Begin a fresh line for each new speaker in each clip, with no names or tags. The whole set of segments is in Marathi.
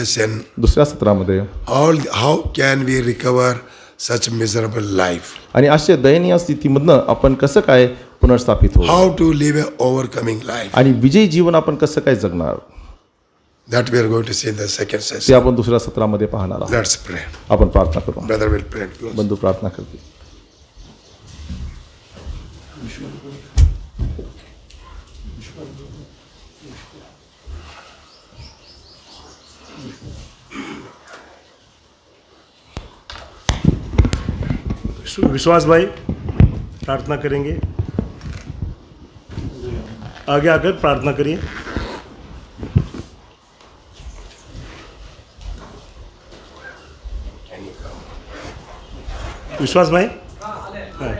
session
दुसऱ्या सत्रामध्ये
all how can we recover such miserable life
आणि अशा दयनीय स्थितीमधनं आपण कसं काय पुनर्स्थापित होऊ
how to live a overcoming life
आणि विजयी जीवन आपण कसं काय जगणार
that we are going to see in the second
ते
session
आपण दुसऱ्या सत्रामध्ये पाहणार आहोत
let's pray
आपण प्रार्थना करू
brother will pray and close.
बंधू प्रार्थना करतील
सु- विश्वास भाई प्रार्थना करेंगे आगे आकर प्रार्थना करिए विश्वास भाई हाँ।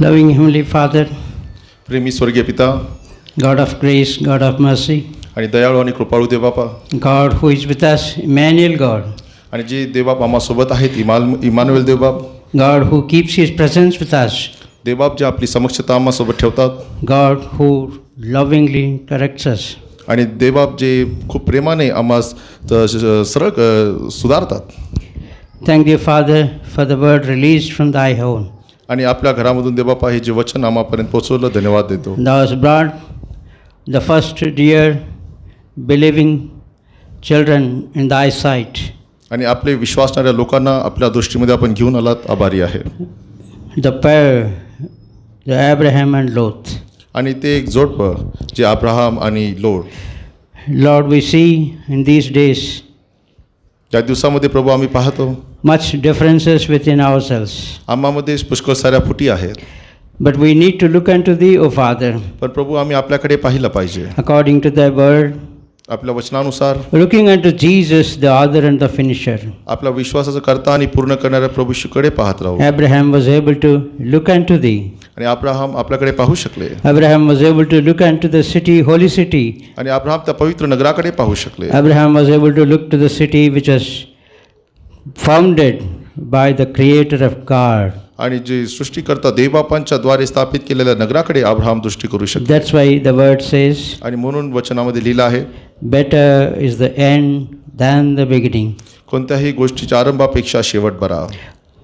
Loving Heavenly Father,
प्रेमी स्वर्गीय पिता
God of grace, God of mercy,
आणि दयाळू आणि कृपाळू देवबापा
God who is with us, Emmanuel God,
आणि जे देवबाप आम्हासोबत आहेत इमान इमानुएल देवबाप
God who keeps His presence with us,
देवबाप जे आपली समक्षता आम्हासोबत ठेवतात
God who lovingly corrects us.
आणि देवबाप जे खूप प्रेमाने आम्हास त- श- श- सरळ अ, सुधारतात
Thank Thee, Father, for the word released from Thy own.
आणि आपल्या घरामधून देवबापा हे जे वचन आम्हापर्यंत पोहोचवलं धन्यवाद देतो
Thou hast brought the first dear, believing children in Thy sight,
आणि आपले विश्वासणाऱ्या लोकांना आपल्या दृष्टीमध्ये आपण घेऊन आलात आभारी आहे
the pair, the Abraham and Lot.
आणि ते एक जोडपं जे अब्राहम आणि Lord
Lord, we see in these days
त्या दिवसामध्ये प्रभू आम्ही पाहतो
much differences within ourselves.
आम्हामध्ये पुष्कळ साऱ्या फुटी आहेत
But we need to look unto Thee, O Father,
पण प्रभू आम्ही आपल्याकडे पाहिलं पाहिजे
according to Thy word,
आपल्या वचनानुसार
looking unto Jesus, the author and the finisher.
आपला विश्वासाचा करता आणि पूर्ण करणाऱ्या प्रभूशीकडे पाहत राहू
Abraham was able to look unto Thee.
आणि अब्राहम आपल्याकडे पाहू शकले
Abraham was able to look unto the city, holy city.
आणि अब्राहम त्या पवित्र नगराकडे पाहू शकले
Abraham was able to look to the city which was founded by the Creator of God.
आणि जे सृष्टीकर्ता देवबापांच्या द्वारे स्थापित केलेल्या नगराकडे अब्राहम दृष्टी करू शकले
That's why the word says,
आणि म्हणून वचनामध्ये लिहिलं आहे
Better is the end than the beginning.
कोणत्याही गोष्टीच्या आरंभापेक्षा शेवट बरा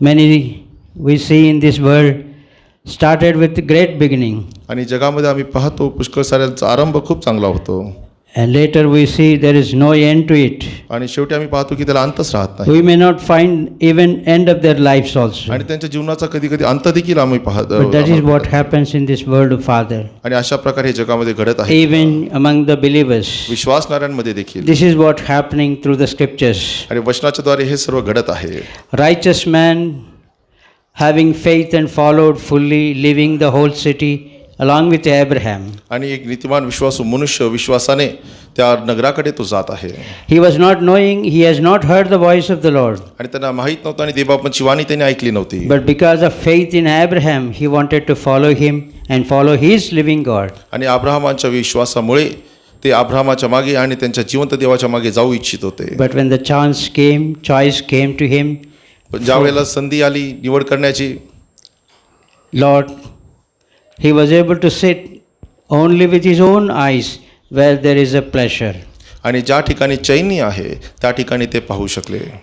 Many we see in this world started with great beginning.
आणि जगामध्ये आम्ही पाहतो पुष्कळ साऱ्यांचा आरंभ खूप चांगला होतो
And later we see there is no end to it.
आणि शेवटी आम्ही पाहतो की त्याला अंतच राहत नाही
We may not find even end of their lives also.
आणि त्यांच्या जीवनाचा कधी कधी अंत देखील आम्ही
But that is what
पाहतो
happens in this world of Father,
आणि अशा प्रकारे हे जगामध्ये घडत आहे
even among the believers.
विश्वासणाऱ्यांमध्ये देखील
This is what happening through the scriptures.
आणि वचनाच्या द्वारे हे सर्व घडत आहे
Righteous man having faith and followed fully, leaving the whole city along with Abraham.
आणि एक नीतिमान विश्वासू मनुष्य विश्वासाने त्या नगराकडे तो जात आहे
He was not knowing, he has not heard the voice of the Lord.
आणि त्यांना माहीत नव्हतं आणि देवबापांची वाणी त्यांनी ऐकली नव्हती
But because of faith in Abraham, he wanted to follow him and follow his living God.
आणि अब्राहमांच्या विश्वासामुळे ते अब्राहमाच्या मागे आणि त्यांच्या जिवंत देवाच्या मागे जाऊ इच्छित होते
But when the chance came, choice came to him,
पण ज्या वेळेला संधी आली निवड करण्याची
Lord, he was able to sit only with his own eyes where there is a pleasure.
आणि ज्या ठिकाणी चैनी आहे त्या ठिकाणी ते पाहू शकले